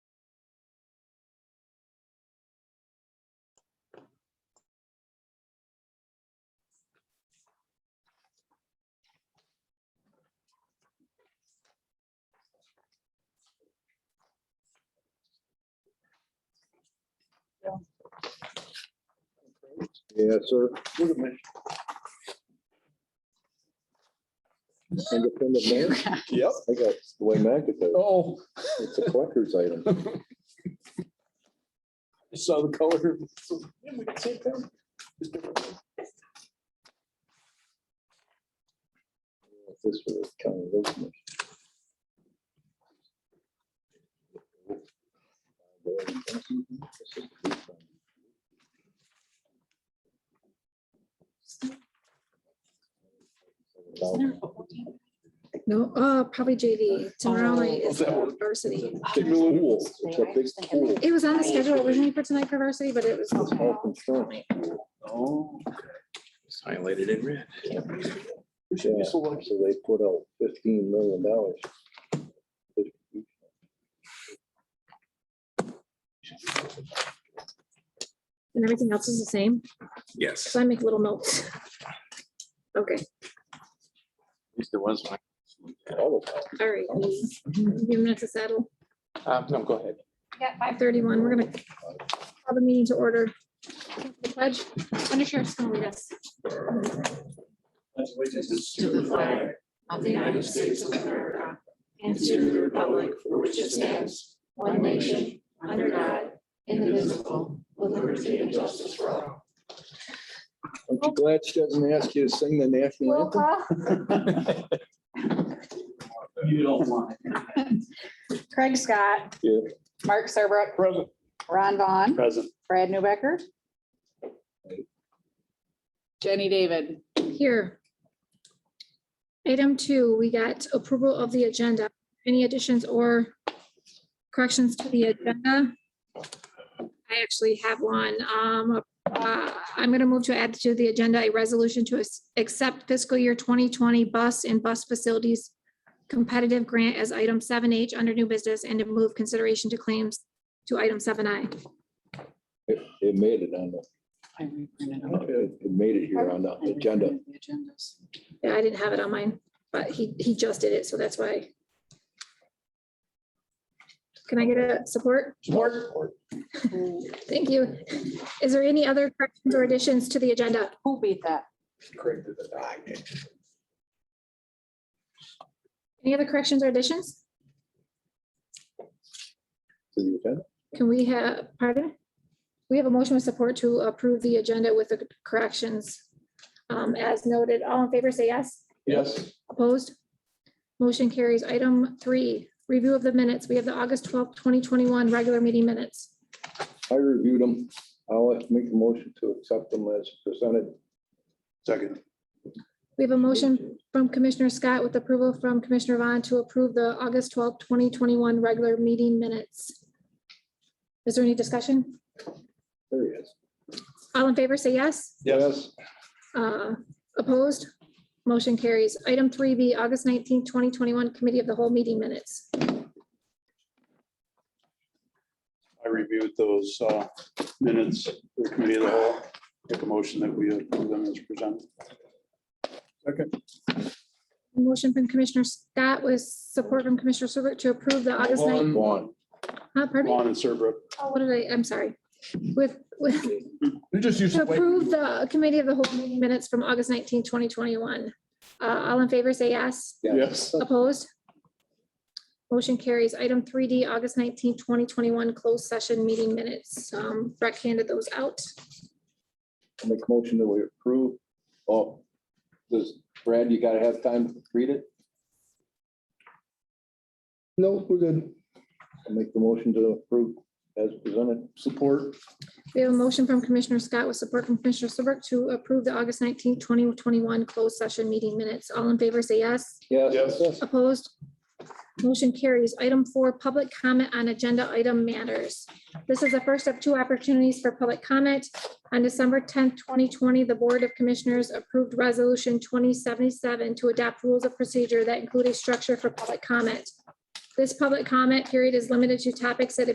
Yes, sir. Independent mayor? Yep. I got the way Mac did it. Oh, It's a collector's item. so the color. This was kind of business. No, uh, probably JV. Tomorrow night Oh, is that one. varsity. Kimberly Wool. It's a big pool. It was on the schedule originally for tonight for varsity, but it was. It's all construction. Oh. Highlighted in red. Yeah, So they put out fifteen million dollars. And everything else is the same, Yes. so I make little notes. Okay, At least there was one. all right. Give me a minute to settle. Uh, no, go ahead. Yeah, five thirty-one, we're gonna call the meeting to order. The Pledge, under sheriff's gonna lead us. to the flag of the United States of America and to the republic for which it stands, one nation, under God, indivisible, with liberty and justice for all. Aren't you glad she doesn't ask you to sing the national anthem? You don't want. Craig Scott. Yeah. Mark Serbrook, Present. Ron Vaughn, Present. Brad Newbecker. Jenny David. Here. Item two, we got approval of the agenda. Any additions or corrections to the agenda? I actually have one. Um, uh, I'm going to move to add to the agenda a resolution to ac- accept fiscal year 2020 bus and bus facilities competitive grant as item 7H under new business and to move consideration to claims to item 7I. It it made it on the, I reprinted them. it it made it here on the agenda. The agendas. Yeah, I didn't have it on mine, but he, he just did it, so that's why. Can I get a support? Who Thank you. Is there any other corrections or additions to the agenda? who beat that? Any other corrections or additions? To the agenda. Can we have, pardon? We have a motion with support to approve the agenda with the corrections. um, As noted, all in favor, say yes. Yes. Opposed? Motion carries. Item three, review of the minutes. We have the August twelfth, twenty twenty-one regular meeting minutes. I reviewed them. I'll make a motion to accept them as presented. Second. We have a motion from Commissioner Scott with approval from Commissioner Vaughn to approve the August twelfth, twenty twenty-one regular meeting minutes. Is there any discussion? There he is. All in favor, say yes. Yes. Uh, Opposed? Motion carries. Item three B, August nineteenth, twenty twenty-one Committee of the Whole Meeting Minutes. I reviewed those uh, minutes for the committee of the whole. Make a motion that we approve them as presented. Motion from Commissioner Scott with support from Commissioner Serbrook to approve the August ninth. One. Juan, Pardon me? Vaughn and Serbrook. Oh, What did I, I'm sorry. With, with, You just used to to wait. approve the Committee of the Whole Meeting Minutes from August nineteenth, twenty twenty-one. Uh, All in favor, say yes. Yes. Opposed? Motion carries. Item three D, August nineteenth, twenty twenty-one, closed session meeting minutes. Um, Breck handed those out. I Make a motion that we approve. Oh, does Brad, you gotta have time to read it? No, we're good. I'll make the motion to approve as presented. Support. We have a motion from Commissioner Scott with support from Commissioner Serbrook to approve the August nineteenth, twenty twenty-one, closed session meeting minutes. All in favor, say yes. Yes. Yes. Opposed? Motion carries. Item four, public comment on agenda item matters. This is the first of two opportunities for public comment. On December tenth, twenty twenty, the Board of Commissioners approved Resolution twenty seventy-seven to adopt rules of procedure that include a structure for public comment. This public comment period is limited to topics that have